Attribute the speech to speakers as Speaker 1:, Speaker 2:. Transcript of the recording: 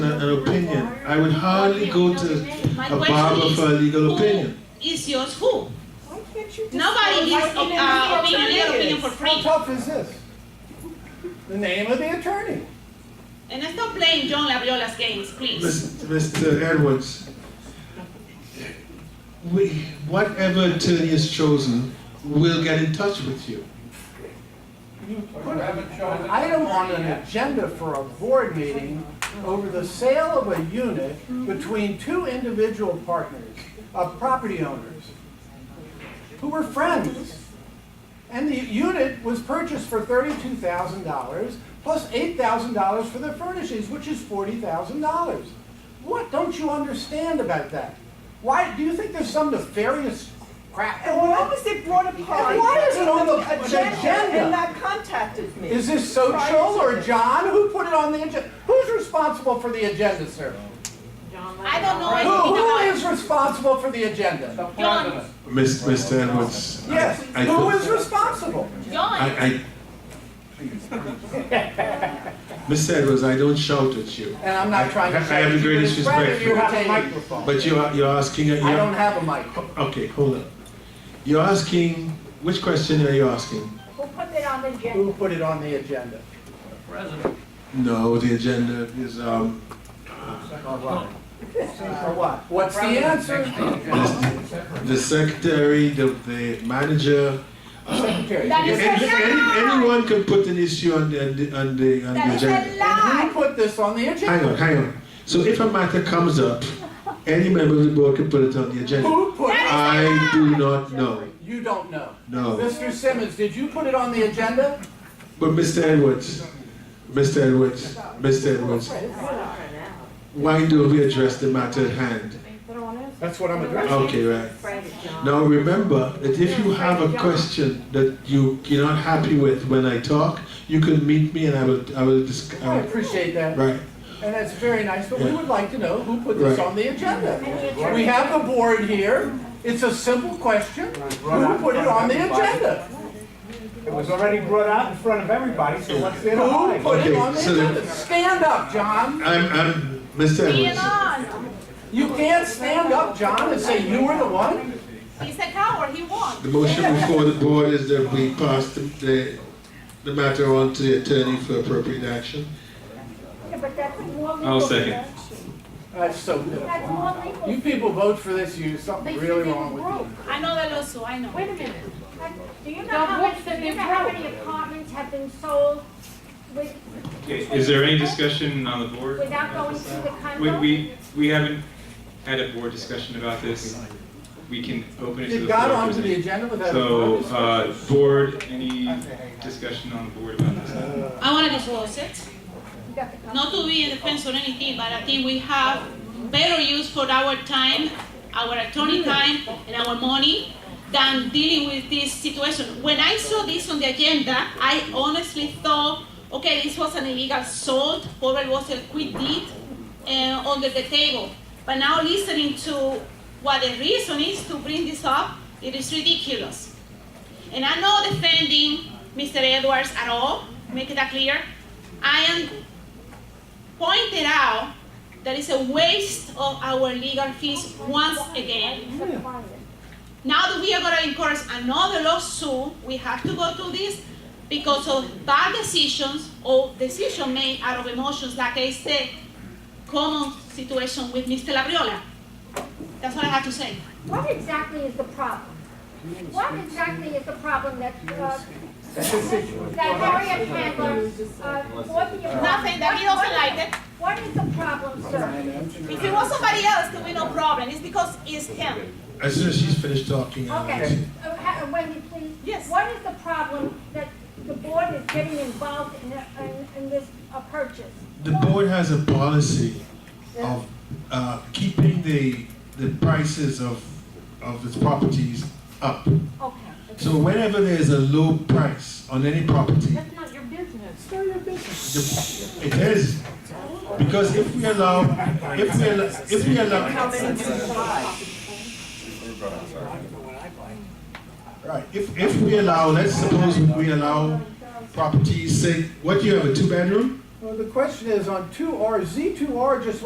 Speaker 1: an opinion. I would hardly go to a barber for a legal opinion.
Speaker 2: Is yours who?
Speaker 3: Why can't you just
Speaker 2: Nobody
Speaker 3: go
Speaker 2: is,
Speaker 3: right in and
Speaker 2: uh,
Speaker 3: see what
Speaker 2: opinion,
Speaker 3: it
Speaker 2: legal
Speaker 3: is?
Speaker 2: opinion for free.
Speaker 4: How tough is this? The name of the attorney.
Speaker 2: And I stop playing John Labriola's games, please.
Speaker 1: Mis- Mr. Edwards, we, whatever attorney is chosen, will get in touch with you.
Speaker 4: You put an item on an agenda for a board meeting over the sale of a unit between two individual partners, of property owners, who were friends. And the unit was purchased for thirty-two thousand dollars, plus eight thousand dollars for the furnishings, which is forty thousand dollars. What don't you understand about that? Why, do you think there's some nefarious crap?
Speaker 3: And why was it brought upon?
Speaker 4: And why is it on the agenda?
Speaker 3: And not contacted me?
Speaker 4: Is this social or John? Who put it on the agenda? Who's responsible for the agenda, sir?
Speaker 2: I don't know
Speaker 4: Who, who
Speaker 2: anything
Speaker 4: is responsible for the agenda?
Speaker 2: about John.
Speaker 1: Miss- Mr. Edwards. I-
Speaker 4: Yes,
Speaker 1: I
Speaker 4: who
Speaker 1: could-
Speaker 4: is responsible?
Speaker 2: John,
Speaker 1: I, I. Mr. Edwards, I don't shout at you,
Speaker 4: And I'm not trying to.
Speaker 1: I- I have the greatest
Speaker 4: In front of
Speaker 1: respect for
Speaker 4: you,
Speaker 1: you.
Speaker 4: you have a microphone.
Speaker 1: but you are, you're asking, a-
Speaker 4: I don't
Speaker 1: you're,
Speaker 4: have a microphone.
Speaker 1: okay, hold on. You're asking, which question are you asking?
Speaker 5: Who put it on the agenda?
Speaker 4: Who put it on the agenda?
Speaker 1: No, the agenda is, um,
Speaker 4: Or what? Or what? Uh, What's the answer?
Speaker 1: the, the secretary, the, the manager.
Speaker 4: Secretary.
Speaker 5: That
Speaker 1: Any,
Speaker 5: is
Speaker 4: And
Speaker 5: a
Speaker 1: any-
Speaker 5: lie!
Speaker 1: anyone can put an issue on the, on the, on the on the
Speaker 5: That is a
Speaker 1: agenda.
Speaker 4: who
Speaker 5: lie!
Speaker 4: put this on the
Speaker 1: Hang
Speaker 4: agenda?
Speaker 1: on, hang on. So if a matter comes up, any member of the board can put it on the agenda.
Speaker 4: Who put it?
Speaker 1: I do not know,
Speaker 4: You don't know.
Speaker 1: no.
Speaker 4: Mr. Simmons, did you put it on the agenda?
Speaker 1: But Mr. Edwards, Mr. Edwards, Mr. Edwards, why don't we address the matter at hand?
Speaker 4: That's what I'm addressing.
Speaker 1: Okay, right. Now, remember that if you have a question that you, you're not happy with when I talk, you can meet me and I will, I will dis- I
Speaker 4: I
Speaker 1: will-
Speaker 4: appreciate that.
Speaker 1: right.
Speaker 4: And that's very nice, but we would like to know who put this
Speaker 1: Right.
Speaker 4: on the agenda.
Speaker 5: Right.
Speaker 4: We have the board here, it's a simple question, who put it on the agenda?
Speaker 6: It was already brought out in front of everybody, so what's it
Speaker 4: Who
Speaker 6: hide?
Speaker 4: put it
Speaker 1: Okay,
Speaker 4: on the
Speaker 1: so then-
Speaker 4: agenda? Stand up, John,
Speaker 1: I'm, I'm, Mr.
Speaker 5: Being
Speaker 1: Edwards,
Speaker 5: on!
Speaker 4: you can't stand up, John, and say you were the one?
Speaker 2: he's a coward, he won.
Speaker 1: the motion before the board is that we pass the, the, the matter on to the attorney for appropriate action.
Speaker 5: Yeah, but that's more legal.
Speaker 7: I'll Oh, second.
Speaker 5: action.
Speaker 4: That's so good.
Speaker 5: That's more legal.
Speaker 4: You people vote for this, you, something really wrong with you.
Speaker 2: I know the lawsuit, I know.
Speaker 8: Wait a minute,
Speaker 5: Do you know
Speaker 8: Now,
Speaker 5: how
Speaker 8: what's
Speaker 5: many,
Speaker 8: the
Speaker 5: do you know how
Speaker 8: difference?
Speaker 5: many apartments have been sold with,
Speaker 7: Is there any discussion on the board?
Speaker 5: without going through the
Speaker 7: We,
Speaker 5: condo?
Speaker 7: we, we haven't had a board discussion about this. We can open it to
Speaker 4: It
Speaker 7: the
Speaker 4: got
Speaker 7: floor. if
Speaker 4: onto the
Speaker 7: there's
Speaker 4: agenda
Speaker 7: any-
Speaker 4: without. a
Speaker 7: So,
Speaker 4: purpose.
Speaker 7: uh, board, any discussion on the board about this?
Speaker 2: I wanna divorce it,
Speaker 5: You got the condo.
Speaker 2: not to be in defense or anything, but I think we have better use for our time, our attorney time, and our money than dealing with this situation. When I saw this on the agenda, I honestly thought, okay, this was an illegal sold, probably was a quick deed, uh, under the table. But now listening to what the reason is to bring this up, it is ridiculous. And I'm not defending Mr. Edwards at all, make that clear. I am pointed out that it's a waste of our legal fees once again. Now that we are gonna encourage another lawsuit, we have to go through this because of bad decisions or decision made out of emotions, like I said, common situation with Mr. Labriola. That's what I have to say.
Speaker 5: What exactly is the problem? What exactly is the problem that, uh, that Harriet Handler, uh, for the apartment?
Speaker 2: Nothing, that he doesn't like it.
Speaker 5: What is the problem, sir?
Speaker 2: If it was somebody else, there would be no problem. It's because it's him.
Speaker 1: As soon as she's finished talking, I'll
Speaker 5: Okay, uh, ha- Wendy, please.
Speaker 2: Yes.
Speaker 5: What is the problem that the board is getting involved in, in, in this uh, purchase?
Speaker 1: The board has a policy of uh, keeping the, the prices of, of its properties up.
Speaker 5: Okay.
Speaker 1: So whenever there's a low price on any property,
Speaker 8: that's not your business.
Speaker 1: the- it is. Because if we allow, if we allow, if we allow, right, if, if we allow, let's suppose we allow properties, say, what do you have, a two-bedroom?
Speaker 4: Well, the question is, on two R, Z two R just